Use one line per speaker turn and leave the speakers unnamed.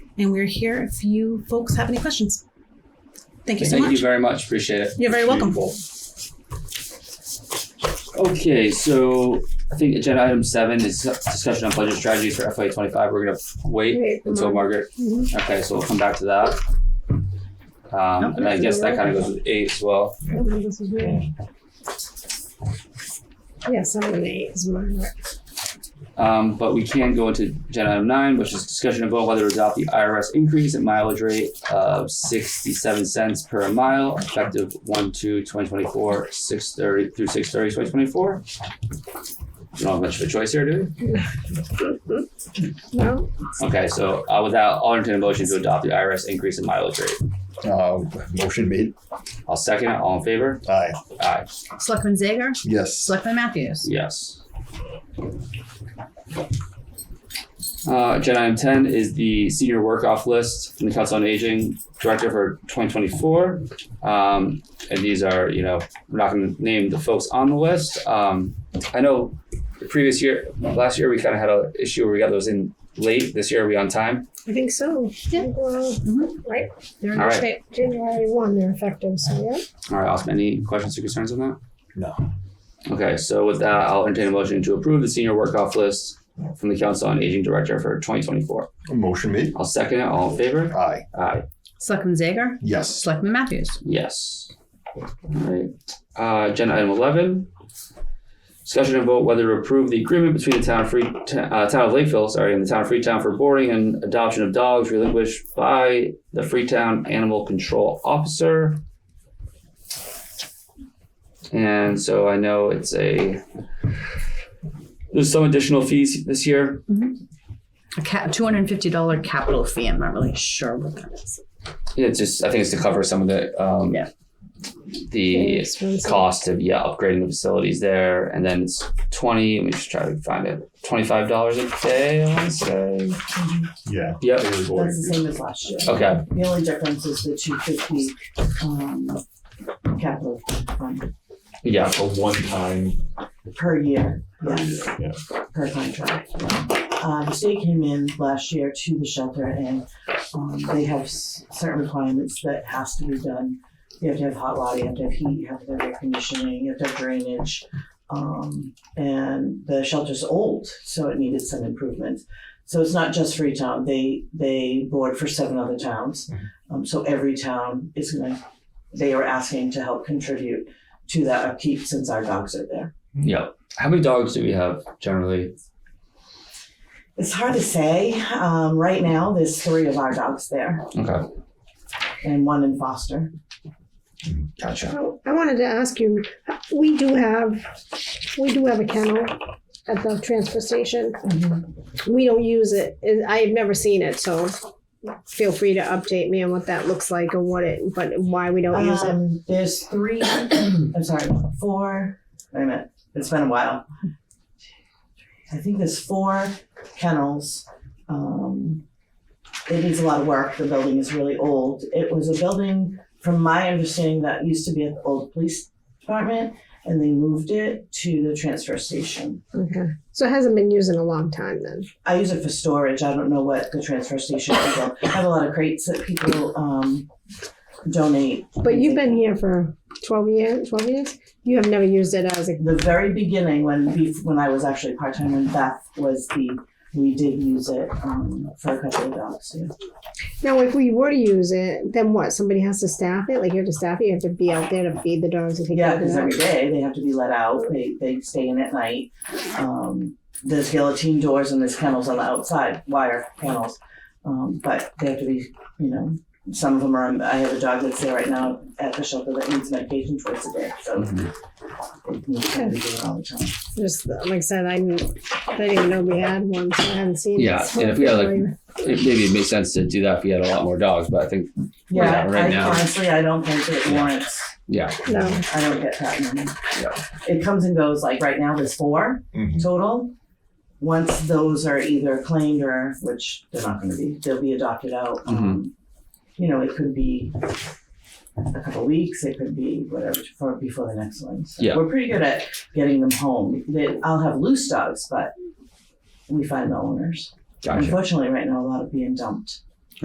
And we're here if you folks have any questions. Thank you so
Thank
much.
you very much. Appreciate it.
You're very welcome.
Okay, so I think agenda item seven is discussion on budget strategy for FY twenty-five. We're gonna wait
Wait,
until Margaret.
Mhm.
Okay, so we'll come back to that. Um, and I guess that kind of goes with eight as well.
I believe this is mine. Yeah, seven eight is mine, right?
Um, but we can go into agenda item nine, which is discussion about whether to adopt the IRS increase in mileage rate of sixty-seven cents per mile effective one, two, twenty twenty-four, six thirty through six thirty, twenty twenty-four. You don't have much of a choice here, do
No,
we? Okay, so uh, with that, I'll entertain a motion to adopt the IRS increase in mileage rate.
Uh, motion made.
I'll second it. All in favor?
Aye.
Aye.
Selectman Zager?
Yes.
Selectman Matthews?
Yes. Uh, agenda item ten is the senior work off list from the Council on Aging Director for twenty twenty four. Um, and these are, you know, we're not gonna name the folks on the list. Um, I know the previous year, last year, we kind of had a issue where we got those in late. This year, are we on time?
I think so.
Yeah.
Well, right,
They're in
All
good
right.
shape.
January one, they're effective, so yeah.
All right, Austin, any questions or concerns on that?
No.
Okay, so with that, I'll entertain a motion to approve the senior work off list from the Council on Aging Director for twenty twenty four.
Motion made.
I'll second it. All in favor?
Aye.
Aye.
Selectman Zager?
Yes.
Selectman Matthews?
Yes. All right. Uh, agenda item eleven. Discussion and vote whether to approve the agreement between the town of Free, uh, town of Lakeville, sorry, and the town of Freetown for boarding and adoption of dogs relinquished by the Freetown Animal Control Officer. And so I know it's a, there's some additional fees this year,
A cap, two hundred and fifty dollar capital fee. I'm not really sure what that is.
Yeah, it's just I think it's to cover some of the um
Yeah.
the
Expensive.
cost of yeah upgrading the facilities there, and then it's twenty. Let me just try to find it. Twenty five dollars a day. I want to say.
Yeah.
Yep.
It was
That's the same as last year.
Okay.
The only difference is the two fifty, um, capital fund
Yeah.
a one-time
per year,
per
yeah,
year, yeah.
per contract. Uh, the state came in last year to the shelter and, um, they have s- certain requirements that has to be done. You have to have hot water, you have to have heat, you have to have air conditioning, you have to have drainage. Um, and the shelter's old, so it needed some improvements. So it's not just Freetown, they, they board for seven other towns.
Mm-hmm.
Um, so every town is gonna, they are asking to help contribute to that upkeep since our dogs are there.
Yeah. How many dogs do we have generally?
It's hard to say. Um, right now, there's three of our dogs there
Okay.
and one in foster.
Gotcha.
Oh, I wanted to ask you, we do have, we do have a kennel at the transfer station. We don't use it. It- I have never seen it, so feel free to update me on what that looks like and what it, but why we don't use it.
Um, there's three, I'm sorry, four. Wait a minute. It's been a while. I think there's four kennels. Um, it needs a lot of work. The building is really old. It was a building, from my understanding, that used to be at the old police department, and they moved it to the transfer station.
Okay. So it hasn't been used in a long time then.
I use it for storage. I don't know what the transfer station is. I have a lot of crates that people um, donate.
But you've been here for twelve years, twelve years? You have never used it as a,
The very beginning when bef- when I was actually part time when Beth was the we did use it um, for a couple of dogs. Yeah.
now if we were to use it, then what? Somebody has to staff it? Like you have to staff it, you have to be out there to feed the dogs and take care
Yeah,
of the
because
dogs?
every day they have to be let out. They they stay in at night. Um, there's guillotine doors and there's kennels on the outside, wire panels. Um, but they have to be, you know, some of them are. on- I have a dog that's there right now at the shelter that needs medication twice a day. So
Mhm.
it needs to be doing all the time.
Just like I said, I didn't, I didn't even know we had one, so I haven't seen it.
Yeah, and if we had, like- It, maybe it makes sense to do that if we had a lot more dogs, but I think
Yeah,
Yeah, right
I,
now.
honestly, I don't think it warrants.
yeah.
No,
I don't get that many.
Yeah.
It comes and goes. Like right now, there's 4
Mhm.
total. Once those are either claimed or, which they're not going to be, they'll be adopted out. Um, you know, it could be a couple weeks. It could be whatever for, before the next one. So
Yeah.
We're pretty good at getting them home. They, I'll have loose dogs, but we find the owners.
Gotcha.
Unfortunately, right now, a lot of being dumped.